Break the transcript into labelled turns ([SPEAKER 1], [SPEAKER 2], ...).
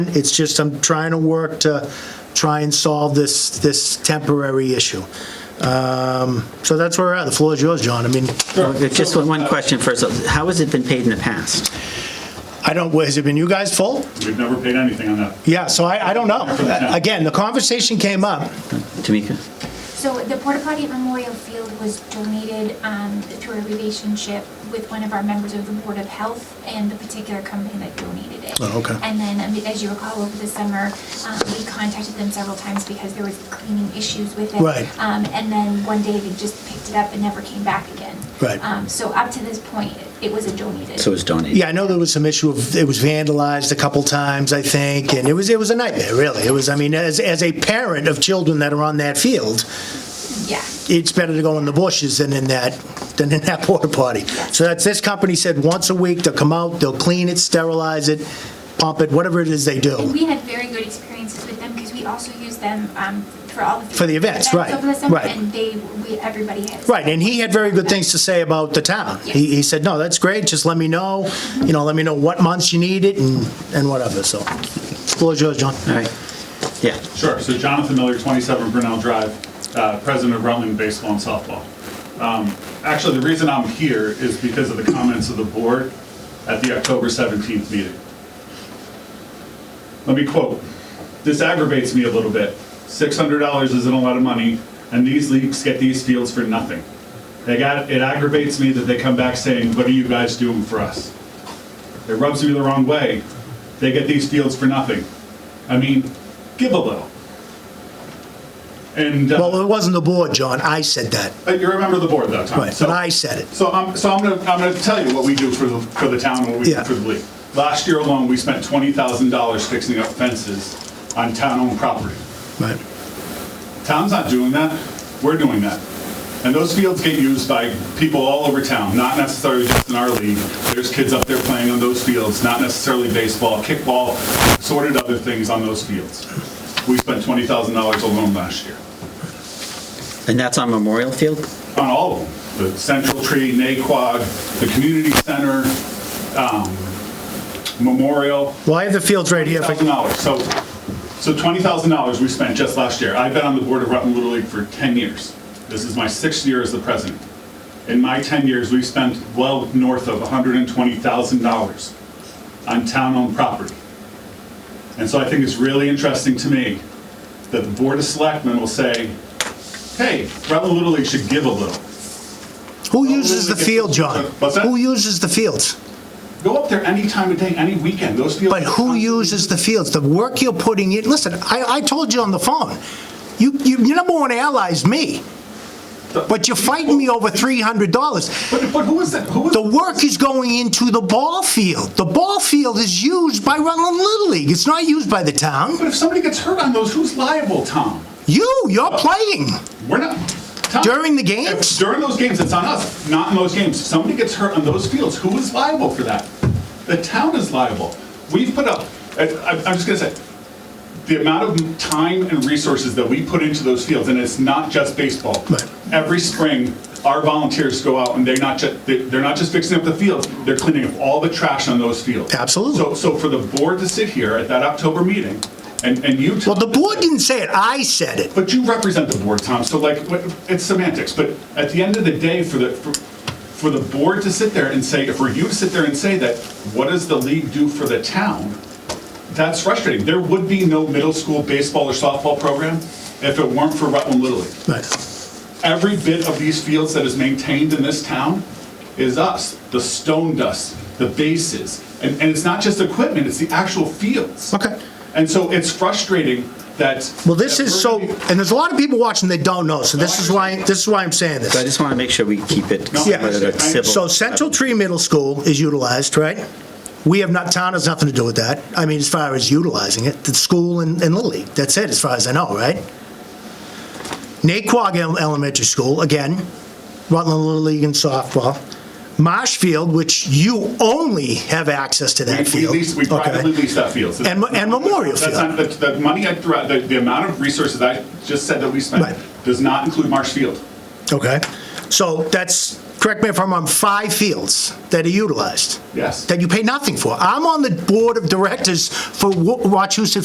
[SPEAKER 1] It's just I'm trying to work to try and solve this, this temporary issue. Um, So that's where we're at. The floor is yours, John. I mean,
[SPEAKER 2] Just one- one question first. How has it been paid in the past?
[SPEAKER 1] I don't, has it been you guys' fault?
[SPEAKER 3] We've never paid anything on that.
[SPEAKER 1] Yeah, so I, I don't know. Again, the conversation came up.
[SPEAKER 2] Tamika?
[SPEAKER 4] So the porta potty at Memorial Field was donated um, to a relationship with one of our members of the Board of Health and the particular company that donated it.
[SPEAKER 1] Oh, okay.
[SPEAKER 4] And then, um, as you recall, over the summer, um, we contacted them several times because there was cleaning issues with it.
[SPEAKER 1] Right.
[SPEAKER 4] Um, And then one day they just picked it up and never came back again.
[SPEAKER 1] Right.
[SPEAKER 4] Um, So up to this point, it was a donated.
[SPEAKER 2] So it's donated?
[SPEAKER 1] Yeah, I know there was some issue of, it was vandalized a couple times, I think, and it was, it was a nightmare, really. It was, I mean, as, as a parent of children that are on that field,
[SPEAKER 4] Yeah.
[SPEAKER 1] it's better to go in the bushes than in that, than in that porta potty. So that's, this company said once a week, they'll come out, they'll clean it, sterilize it, pump it, whatever it is they
[SPEAKER 4] And
[SPEAKER 1] do.
[SPEAKER 4] we had very good experiences with them because we also use them um, for all the.
[SPEAKER 1] For the events, right,
[SPEAKER 4] Over the summer,
[SPEAKER 1] right.
[SPEAKER 4] and they, we, everybody has.
[SPEAKER 1] Right, and he had very good things to say about the town. He, he said, no, that's great, just let me know, you know, let me know what months you need it and, and whatever, so. Floor's yours, John.
[SPEAKER 2] All right. Yeah.
[SPEAKER 3] Sure, so Jonathan Miller, 27 Brunel Drive, uh, president of Rutland Baseball and Softball. Um, Actually, the reason I'm here is because of the comments of the board at the October 17th meeting. Let me quote, "This aggravates me a little bit. $600 isn't a lot of money, and these leagues get these fields for nothing. They got- It aggravates me that they come back saying, 'What are you guys doing for us?' It rubs me the wrong way. They get these fields for nothing. I mean, give a little. And uh,
[SPEAKER 1] Well, it wasn't the board, John, I said that.
[SPEAKER 3] but you remember the board that time.
[SPEAKER 1] Right,
[SPEAKER 3] so-
[SPEAKER 1] but I said it.
[SPEAKER 3] So I'm, so I'm gonna, I'm gonna tell you what we do for the, for the town, and what we do
[SPEAKER 1] Yeah.
[SPEAKER 3] for the league. Last year alone, we spent $20,000 fixing up fences on town-owned property.
[SPEAKER 1] Right.
[SPEAKER 3] Town's not doing that, we're doing that. And those fields get used by people all over town, not necessarily just in our league. There's kids up there playing on those fields, not necessarily baseball, kickball, assorted other things on those fields. We spent $20,000 alone last year.
[SPEAKER 2] And that's on Memorial Field?
[SPEAKER 3] on all of them, the Central Tree, Naquag, the Community Center, um, Memorial,
[SPEAKER 1] Well, I have the fields right here. if I
[SPEAKER 3] thousand
[SPEAKER 1] can-
[SPEAKER 3] dollars. So, so twenty thousand dollars we spent just last year. I've been on the board of Rutland Little League for ten years. This is my sixth year as the president. In my ten years, we've spent well north of one hundred and twenty thousand dollars on town-owned property. And so I think it's really interesting to me that the board of selectmen will say, "Hey, Rutland Little League should give a little."
[SPEAKER 1] Who uses the field, John?
[SPEAKER 3] What's that?
[SPEAKER 1] Who uses the fields?
[SPEAKER 3] Go up there any time of day, any weekend. Those fields.
[SPEAKER 1] But who uses the fields? The work you're putting in, listen, I, I told you on the phone, you, you, your number one ally is me. But you're fighting me over $300.
[SPEAKER 3] But, but who is that? Who is?
[SPEAKER 1] The work is going into the ball field. The ball field is used by Rutland Little League. It's not used by the town.
[SPEAKER 3] but if somebody gets hurt on those, who's liable, Tom?
[SPEAKER 1] You, you're playing.
[SPEAKER 3] We're not. Tom,
[SPEAKER 1] During the
[SPEAKER 3] if-
[SPEAKER 1] games?
[SPEAKER 3] During those games, it's on us. Not in those games. If somebody gets hurt on those fields, who is liable for that? The town is liable. We've put up. I, I- I'm just gonna say, the amount of time and resources that we put into those fields, and it's not just baseball.
[SPEAKER 1] Right.
[SPEAKER 3] Every spring, our volunteers go out and they're not just, they're not just fixing up the fields, they're cleaning up all the trash on those fields.
[SPEAKER 1] Absolutely.
[SPEAKER 3] So, so for the board to sit here at that October meeting and, and you.
[SPEAKER 1] Well, the board didn't say it, I said it.
[SPEAKER 3] But you represent the board, Tom, so like, what- it's semantics, but at the end of the day, for the, for- for the board to sit there and say, for you to sit there and say that, what does the league do for the town? That's frustrating. There would be no middle school baseball or softball program if it weren't for Rutland Little League.
[SPEAKER 1] Right.
[SPEAKER 3] Every bit of these fields that is maintained in this town is us, the stone dust, the bases. And, and it's not just equipment, it's the actual fields.
[SPEAKER 1] Okay.
[SPEAKER 3] And so it's frustrating that.
[SPEAKER 1] Well, this
[SPEAKER 3] that
[SPEAKER 1] is
[SPEAKER 3] we're
[SPEAKER 1] so,
[SPEAKER 3] gonna be-
[SPEAKER 1] and there's a lot of people watching that don't know, so this is why, this is why I'm saying this.
[SPEAKER 2] So I just want to make sure we keep it
[SPEAKER 3] No,
[SPEAKER 1] Yeah.
[SPEAKER 2] at a civil.
[SPEAKER 1] So Central Tree Middle School is utilized, right? We have not, town has nothing to do with that. I mean, as far as utilizing it, the school and, and Little League, that's it, as far as I know, right? Naquag Ele- Elementary School, again, Rutland Little League and softball. Marshfield, which you only have access to that
[SPEAKER 3] We
[SPEAKER 1] field.
[SPEAKER 3] lease, we
[SPEAKER 1] Okay.
[SPEAKER 3] privately lease that field. So
[SPEAKER 1] And Mo- and Memorial
[SPEAKER 3] That's not, the, the money I threw out, the, the amount of resources I just said that we spent
[SPEAKER 1] Right.
[SPEAKER 3] does not include Marsh Field.
[SPEAKER 1] Okay, so that's, correct me if I'm wrong, five fields that are utilized
[SPEAKER 3] Yes.
[SPEAKER 1] that you pay nothing for. I'm on the board of directors for Wa- Wachusett